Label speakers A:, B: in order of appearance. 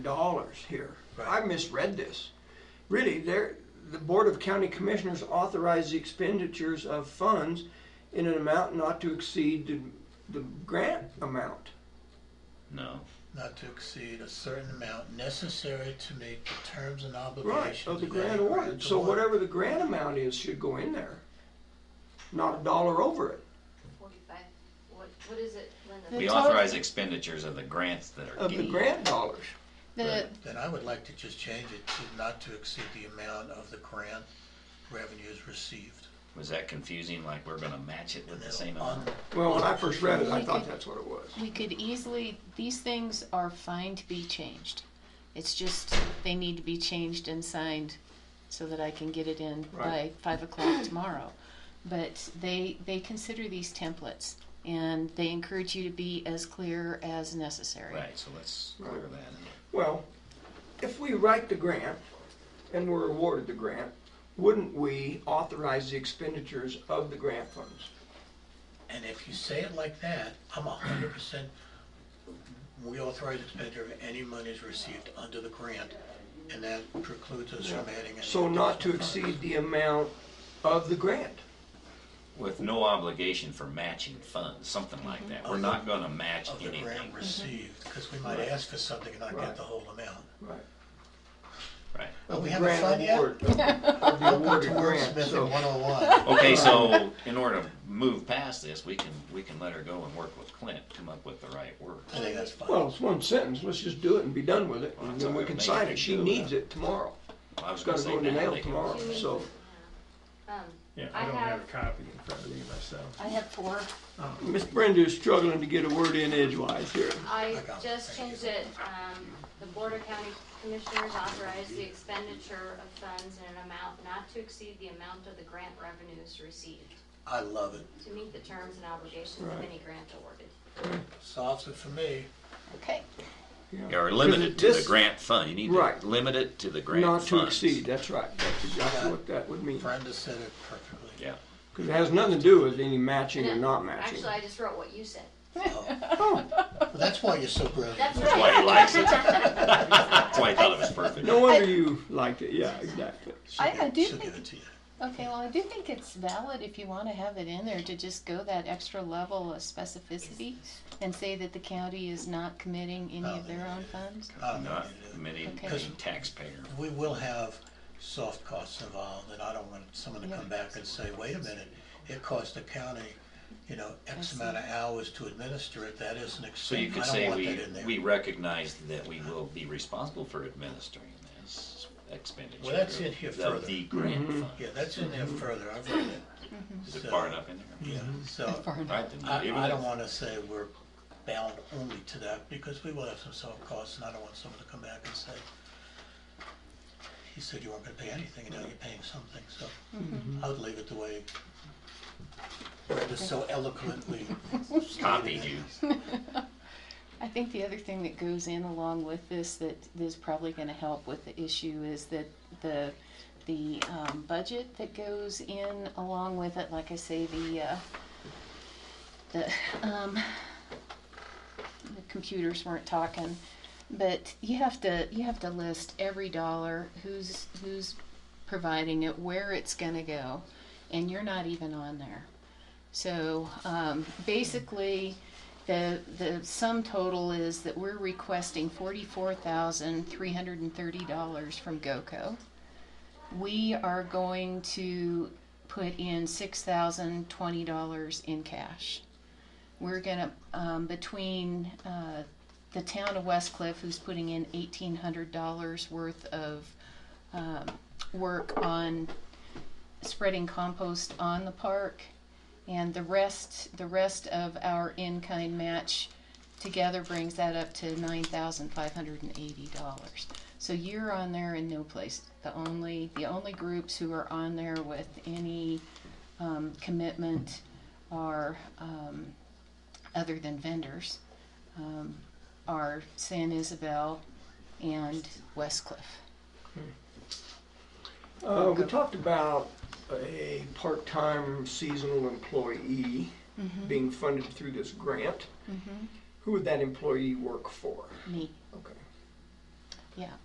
A: dollars here.
B: Right.
A: I misread this. Really, there, the Board of County Commissioners authorized the expenditures of funds in an amount not to exceed the, the grant amount.
C: No.
B: not to exceed a certain amount necessary to meet the terms and
A: Right,
B: obligations.
A: of the
B: of
A: grant
B: any
A: award.
B: grant
A: So
B: award.
A: whatever the grant amount is should go in there. Not a dollar over it,
D: Forty-five, what, what is it, Linda?
C: We
E: The total-
C: authorize expenditures of the grants that are
A: of the
C: given.
A: grant dollars.
E: The,
B: Then I would like to just change it to not to exceed the amount of the grant revenues received.
C: Was that confusing, like we're gonna match it with the same
B: On-
C: amount?
A: Well, when I first read it, I
E: We
A: thought
E: could-
A: that's what it was.
E: we could easily, these things are fine to be changed. It's just, they need to be changed and signed so that I can get it in by
A: Right.
E: five o'clock tomorrow. But they, they consider these templates and they encourage you to be as clear as necessary.
C: Right, so let's clear that.
A: Well, if we write the grant and we're awarded the grant, wouldn't we authorize the expenditures of the grant funds?
B: And if you say it like that, I'm hundred percent, we authorize expenditure of any monies received under the grant, and that precludes us from adding any.
A: So not to
B: additional funds.
A: exceed the amount of the grant.
C: With no obligation for matching funds, something
A: Mm-hmm.
C: like that. We're not gonna match
B: Of the grant
C: anything.
B: received, because we might ask for something and not
A: Right.
B: get the whole amount.
A: Right.
C: Right.
B: But we
A: The
B: haven't
A: grant
B: signed yet.
A: award, Of of the
B: Welcome
A: awarded
B: to
A: grant,
B: Wordsmith
A: so.
B: in 101.
C: Okay, so in order to move past this, we can, we can let her go and work with Clint, come up with the right
B: I
C: words.
B: think that's fine.
A: Well, it's one sentence, let's just do it and be done with it, and then we can sign it, she needs it tomorrow.
C: Well, I was
A: It's
C: gonna
A: gotta
C: say
A: go in the
C: now
A: mail
C: they can-
A: tomorrow, so,
D: Um,
F: Yeah,
D: I
F: I don't
D: have-
F: have a copy in front of me myself.
E: I have four.
A: Miss Brenda is struggling to get a word in edgewise here.
D: I
B: I got it.
D: just
B: Thank
D: changed
B: you.
D: it, um, the Board of County Commissioners authorized the expenditure of funds in an amount not to exceed the amount of the grant revenues received
B: I love it.
D: to meet the terms and obligations of
A: Right.
D: any grant awarded.
B: Solves it for me.
E: Okay.
C: Yeah, Or limit it to the
A: This-
C: grant fund. You need
A: Right.
C: to limit it to the grant
A: Not
C: funds.
A: to exceed, that's right, that's exactly what that would mean.
B: Brenda said it perfectly.
C: Yeah.
A: Because it has nothing to do with any matching or not matching.
D: Actually, I just wrote what you said.
B: Well, that's why you're so
D: That's
B: brilliant.
C: That's
D: right.
C: why he likes it. That's why he thought it was perfect.
A: No wonder you liked it, yeah, exactly.
B: She'll
E: I-
B: give-
E: I do
B: She'll give
E: think-
B: it to you.
E: Okay, well, I do think it's valid if you want to have it in there to just go that extra level of specificity and say that the county is not committing any of their own funds.
B: I don't
C: Not
B: think you do.
C: committing
E: Okay.
C: any taxpayer.
B: We will have soft costs involved, and I don't want someone to
E: Yeah.
B: come back and say, wait a minute, it cost the county, you know, X
E: see.
B: amount of hours to administer it, that is an
C: So you
B: expense,
C: could
B: I don't
C: say
B: want
C: we,
B: that in there.
C: we recognize that we will be responsible for administering this expenditure.
B: Well, that's in here
C: of
B: further.
C: The grant fund.
B: Yeah, that's in there further, I've read it.
C: Is it
B: So-
C: far enough in there?
B: Yeah,
E: Mm-hmm.
B: so,
E: Far enough.
C: Right, then
B: I,
C: leave it
B: I
C: in.
B: don't wanna say we're bound only to that, because we will have some soft costs, and I don't want someone to come back and say, he said you weren't gonna pay anything, and now you're paying something, so I would leave it the way Brenda so eloquently
C: Copied
B: stated it.
C: you.
E: I think the other thing that goes in along with this that is probably going to help with the issue is that the the um, budget that goes in along with it, like I say, the uh, the um, the computers weren't talking, but you have to you have to list every dollar who's who's providing it, where it's going to go, and you're not even on there. So um, basically, the the sum total is that we're requesting forty four thousand three hundred and thirty dollars from GOCO. We are going to put in six thousand twenty dollars in cash. We're gonna um, between uh, the town of West Cliff, who's putting in eighteen hundred dollars worth of um, work on spreading compost on the park and the rest, the rest of our in-kind match together brings that up to nine thousand five hundred and eighty dollars. So you're on there in no place. The only, the only groups who are on there with any, um, commitment are, um, other than vendors, um, are San Isabel and West Cliff.
A: Uh, we talked about a part-time seasonal employee being funded through this grant. Who would that employee work for?
E: Me,
A: Okay.
E: yeah.